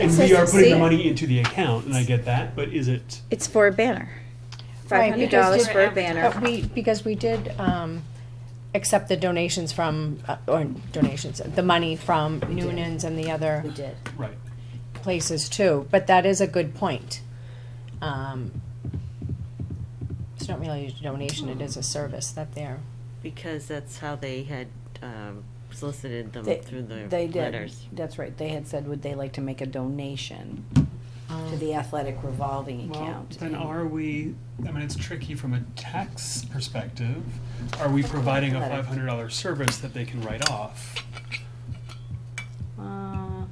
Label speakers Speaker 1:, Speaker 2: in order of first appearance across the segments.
Speaker 1: And
Speaker 2: It
Speaker 1: we
Speaker 2: says
Speaker 1: are putting the
Speaker 2: exceed.
Speaker 1: money into the account, and I get that, but is it,
Speaker 3: It's for a banner. Five
Speaker 2: Right,
Speaker 3: hundred
Speaker 2: because
Speaker 3: dollars
Speaker 2: you-
Speaker 3: for a banner.
Speaker 2: But we, because we did, um, accept the donations from, uh, or donations, the money from Noonan's and the other
Speaker 4: We did.
Speaker 1: right?
Speaker 2: places too, but that is a good point. Um, It's not really a donation, it is a service that they're,
Speaker 5: Because that's how they had um, solicited them
Speaker 4: They-
Speaker 5: through the
Speaker 4: They did,
Speaker 5: letters.
Speaker 4: that's right, they had said, would they like to make a donation to
Speaker 2: um,
Speaker 4: the athletic revolving
Speaker 1: Well,
Speaker 4: account?
Speaker 1: then
Speaker 4: And
Speaker 1: are we, I mean, it's tricky from a tax perspective. Are we providing a five hundred dollar service that they can write off?
Speaker 4: Uh,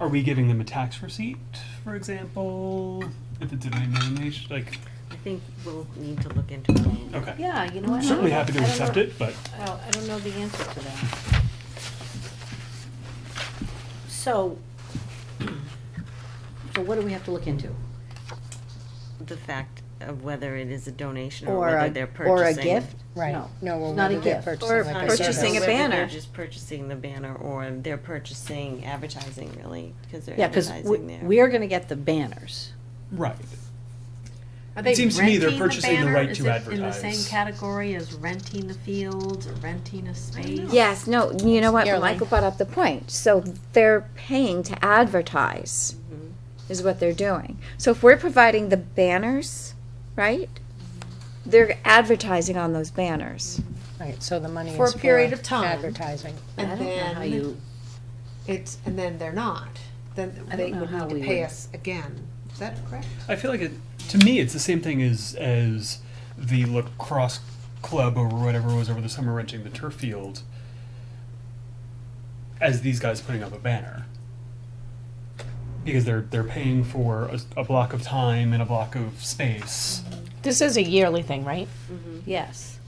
Speaker 1: Are we giving them a tax receipt, for example, if it's a denomination, like,
Speaker 5: I think we'll need to look into it a little bit.
Speaker 1: okay.
Speaker 4: Yeah, you know what? I
Speaker 1: Certainly
Speaker 4: don't-
Speaker 1: happy to
Speaker 4: I don't
Speaker 1: accept
Speaker 4: know-
Speaker 1: it, but
Speaker 4: I don't- I don't know the answer to that. So, so what do we have to look into?
Speaker 5: The fact of whether it is a donation or
Speaker 4: Or
Speaker 5: whether
Speaker 4: a,
Speaker 5: they're
Speaker 4: or a
Speaker 5: purchasing.
Speaker 4: gift?
Speaker 2: right,
Speaker 4: No.
Speaker 2: no, we're
Speaker 4: It's not a
Speaker 2: whether they're
Speaker 4: gift.
Speaker 2: purchasing
Speaker 3: Or
Speaker 2: like
Speaker 5: Or
Speaker 2: a
Speaker 3: purchasing a
Speaker 2: service.
Speaker 5: whether they're
Speaker 3: banner.
Speaker 5: just purchasing the banner or they're purchasing advertising really, because they're
Speaker 4: Yeah, because
Speaker 5: advertising there.
Speaker 4: we're gonna get the banners.
Speaker 1: right.
Speaker 6: Are
Speaker 1: It
Speaker 6: they
Speaker 1: seems to me they're
Speaker 6: renting the
Speaker 1: purchasing the
Speaker 6: banner?
Speaker 1: right
Speaker 6: Is
Speaker 1: to
Speaker 6: it In the
Speaker 1: advertise.
Speaker 6: same category as renting the fields, or renting a space?
Speaker 3: Yes, no, you know what,
Speaker 2: Yearly.
Speaker 3: Michael brought up the point. So they're paying to advertise is what they're doing. So if we're providing the banners, right? They're advertising on those banners.
Speaker 2: Right, so the money is
Speaker 6: For a
Speaker 2: for
Speaker 6: period of time.
Speaker 2: advertising.
Speaker 6: And
Speaker 4: How
Speaker 6: then
Speaker 4: you,
Speaker 6: it's, and then they're not, then
Speaker 4: I don't
Speaker 6: they
Speaker 4: know
Speaker 6: would
Speaker 4: how
Speaker 6: need to
Speaker 4: we
Speaker 6: pay
Speaker 4: would-
Speaker 6: us again. Is that correct?
Speaker 1: I feel like it, to me, it's the same thing as as the lacrosse club or whatever was over the summer renting the turf field, as these guys putting up a banner because they're they're paying for a, a block of time and a block of space.
Speaker 2: This is a yearly thing, right?
Speaker 4: yes.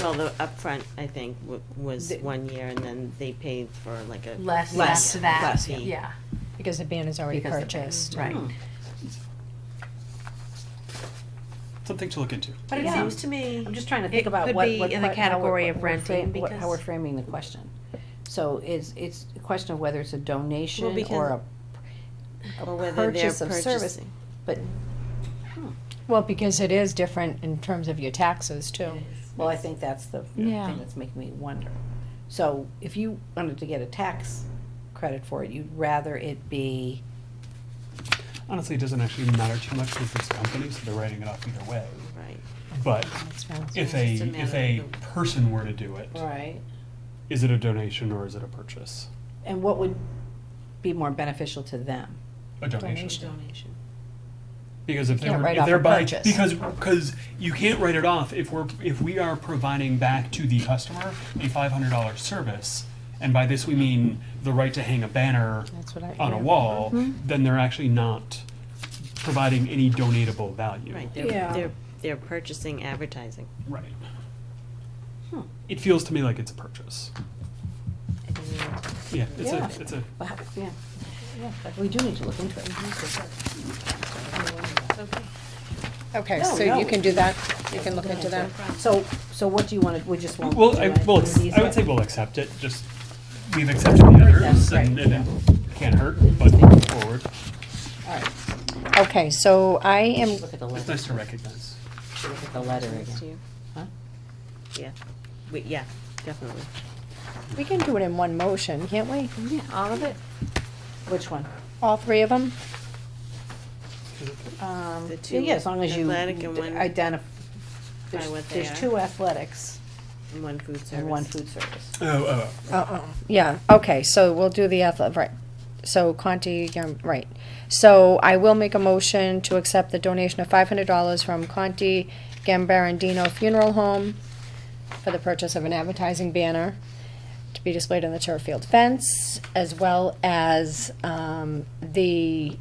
Speaker 5: Well, the upfront, I think, w- was
Speaker 6: The-
Speaker 5: one year and then they paid for like a.
Speaker 6: Less, less
Speaker 5: Less,
Speaker 6: that,
Speaker 5: less, yeah.
Speaker 6: yeah.
Speaker 2: Because the banner's already
Speaker 4: Because the-
Speaker 2: purchased.
Speaker 6: Right.
Speaker 1: Something to look into.
Speaker 6: But it
Speaker 4: Yeah.
Speaker 6: seems to me.
Speaker 4: I'm just trying to
Speaker 6: It
Speaker 4: think about
Speaker 6: could
Speaker 4: what,
Speaker 6: be
Speaker 4: what.
Speaker 6: in the
Speaker 4: part- how we're-
Speaker 6: category
Speaker 4: what
Speaker 6: of
Speaker 4: we're fra-
Speaker 6: renting,
Speaker 4: what- How we're
Speaker 6: because-
Speaker 4: framing the question. So it's, it's a question of whether it's a donation
Speaker 5: because-
Speaker 4: or a,
Speaker 5: Or
Speaker 4: a
Speaker 5: whether they're
Speaker 4: purchase of service.
Speaker 5: purchasing.
Speaker 4: But,
Speaker 2: Well, because it is different in terms of your taxes too.
Speaker 4: well, I think that's the
Speaker 3: Yeah.
Speaker 4: thing that's making me wonder. So if you wanted to get a tax credit for it, you'd rather it be,
Speaker 1: Honestly, it doesn't actually matter too much because it's a company, so they're writing it off either way.
Speaker 5: Right.
Speaker 1: But
Speaker 2: That's fine.
Speaker 1: if
Speaker 5: it's
Speaker 1: a
Speaker 5: just a
Speaker 1: if
Speaker 5: matter
Speaker 1: a
Speaker 5: of the-
Speaker 1: person were to do it, is
Speaker 4: right?
Speaker 1: it a donation or is it a purchase?
Speaker 4: And what would be more beneficial to them?
Speaker 1: A donation.
Speaker 2: Donation.
Speaker 5: Donation.
Speaker 1: Because if
Speaker 2: can't
Speaker 1: they're,
Speaker 2: write
Speaker 1: if
Speaker 2: off
Speaker 1: they're
Speaker 2: a
Speaker 1: buying,
Speaker 2: purchase.
Speaker 1: because, because you can't write it off if we're, if we are providing back to the customer a five hundred dollar service, and by this we mean the right to hang a banner
Speaker 2: That's what I. Mm-hmm.
Speaker 1: on a
Speaker 2: yeah.
Speaker 1: wall, then they're actually not providing any donatable value.
Speaker 5: Right, they're,
Speaker 4: Yeah.
Speaker 5: they're, they're purchasing advertising.
Speaker 1: Right. It feels to me like it's a purchase. Yeah, it's
Speaker 4: Yeah.
Speaker 1: a, it's a,
Speaker 4: Well, how- Yeah, yeah, but we do need to look into it.
Speaker 2: Okay,
Speaker 4: No,
Speaker 2: so
Speaker 4: no.
Speaker 2: you can do that, you can look into that.
Speaker 4: So, so what do you want to, we just want?
Speaker 1: well, I, well,
Speaker 4: will
Speaker 1: ex- I would say we'll accept it, just, we've accepted the others,
Speaker 4: right,
Speaker 1: and and it can't hurt, but moving forward,
Speaker 4: All right,
Speaker 2: Okay, so I am,
Speaker 4: look at the
Speaker 1: it's
Speaker 4: letter,
Speaker 1: nice to recognize.
Speaker 4: look at the letter
Speaker 5: Next to
Speaker 4: again.
Speaker 5: you.
Speaker 4: Huh?
Speaker 5: Yeah, we, yeah, definitely.
Speaker 2: we can do it in one motion, can't we?
Speaker 3: Yeah, all of it.
Speaker 4: Which one?
Speaker 2: All three of them?
Speaker 4: Um,
Speaker 5: The two
Speaker 4: yeah, as long as you
Speaker 5: athletic and one-
Speaker 4: identify,
Speaker 5: what
Speaker 4: there's,
Speaker 5: they
Speaker 4: there's
Speaker 5: are.
Speaker 4: two athletics
Speaker 5: And One food service.
Speaker 4: and one food service.
Speaker 1: Oh, oh, oh.
Speaker 2: Uh-oh, Uh-uh. yeah, okay, so we'll do the athletic, right. So Conti, um, right. So I will make a motion to accept the donation of five hundred dollars from Conti Gambarandino Funeral Home for the purchase of an advertising banner to be displayed on the turf field fence, as well as, um, the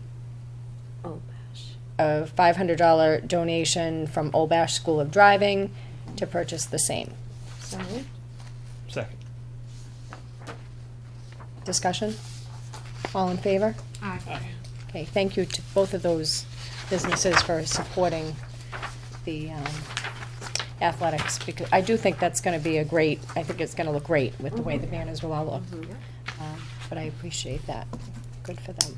Speaker 5: Oh, gosh.
Speaker 2: a five hundred dollar donation from Old Bash School of Driving to purchase the same.
Speaker 1: Second.
Speaker 2: Discussion? All in favor?
Speaker 6: Aye.
Speaker 2: Okay, thank you to both of those businesses for supporting the um, athletics, because I do think that's gonna be a great, I think it's gonna look great with the way the banners will all look. Um, But I appreciate that. Good for them.